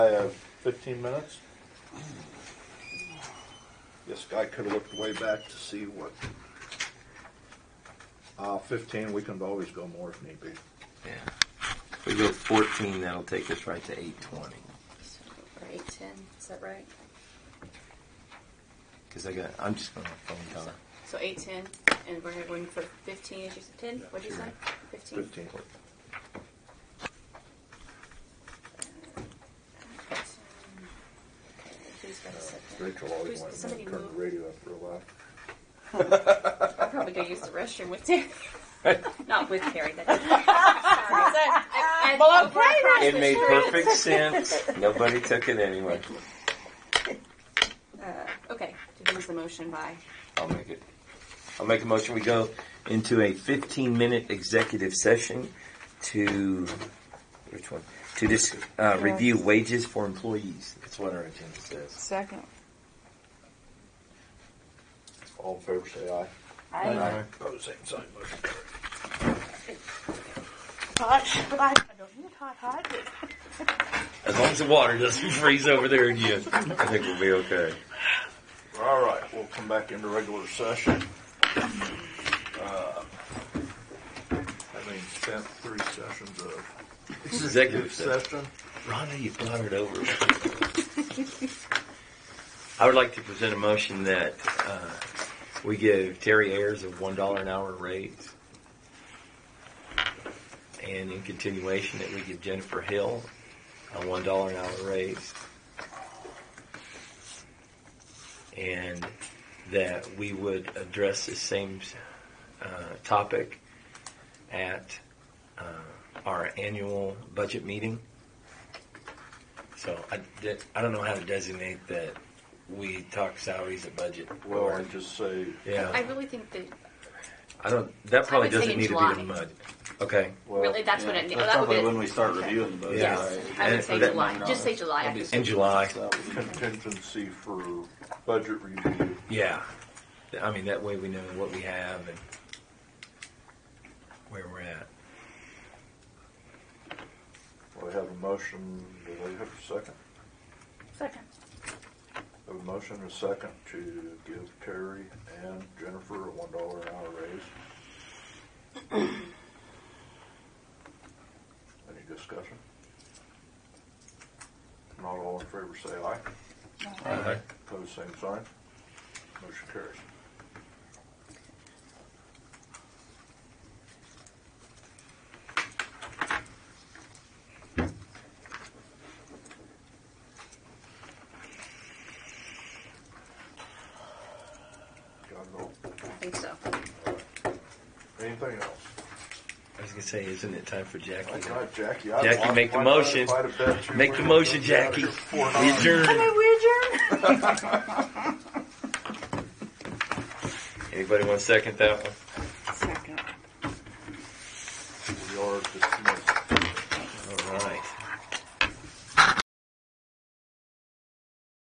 I have fifteen minutes. This guy could have looked way back to see what. Uh, fifteen, we can always go more if need be. Yeah. If we go 14, that'll take us right to 820. Or eight ten, is that right? Because I got, I'm just going to have phone time. So eight ten, and we're going for fifteen. Is you said ten? What'd you say? Fifteen. Fifteen. Who's got a second? Uh, Rachel always Who's- wanted me somebody to turn the moved. radio up real loud. I'll probably go use the restroom with Terry. Not with Terry. That doesn't. Sorry. Well, okay It made perfect sense. Nobody took it anyway. Uh, okay. So who was the motion by? I'll make it. I'll make a motion. We go into a 15 minute executive session to, which one? To this, uh, review wages for employees. That's what our agenda says. Second. All in favor, say aye. I Pose same sign, motion carried. hot, but I, I don't need hot, hot. but- As long as the water doesn't freeze over there again, I think we'll be okay. All right, we'll come back into regular session. Uh, Having spent three sessions of Executive session. session, Rhonda, you blotted over. I would like to present a motion that uh, we give Terry Ayers a one dollar an hour raise, and in continuation that we give Jennifer Hill a one dollar an hour raise, and that we would address the same uh, topic at uh, our annual budget meeting. So I, did- I don't know how to designate that we talk salaries at budget. well, I or- just say, I yeah, really think that I don't, that probably I would say doesn't need to July. be the mud. Okay. well. really that's what it. That's That would probably be- when we start okay. reviewing the budget. Yeah. Yes, right? I would And say that- July. Just say July. That'd be after- In July, contingency for budget review. yeah. I mean, that way we know what we have and where we're at. We have a motion, do they have a second? Second. Have a motion and a second to give Terry and Jennifer a one dollar an hour raise. Any discussion? Not all in favor, say aye. Uh-huh. Pose same sign. Motion carries. Got it all. I think so. Anything else? I was gonna say, isn't it time for Jackie? My to- God, Jackie, I'd Jackie, want- make the why not motion. if I'd have bet you Make would've the motion, been out Jackie. here before We now. adjourn. we adjourn? Anybody want to second that one? Second. We are dismissed.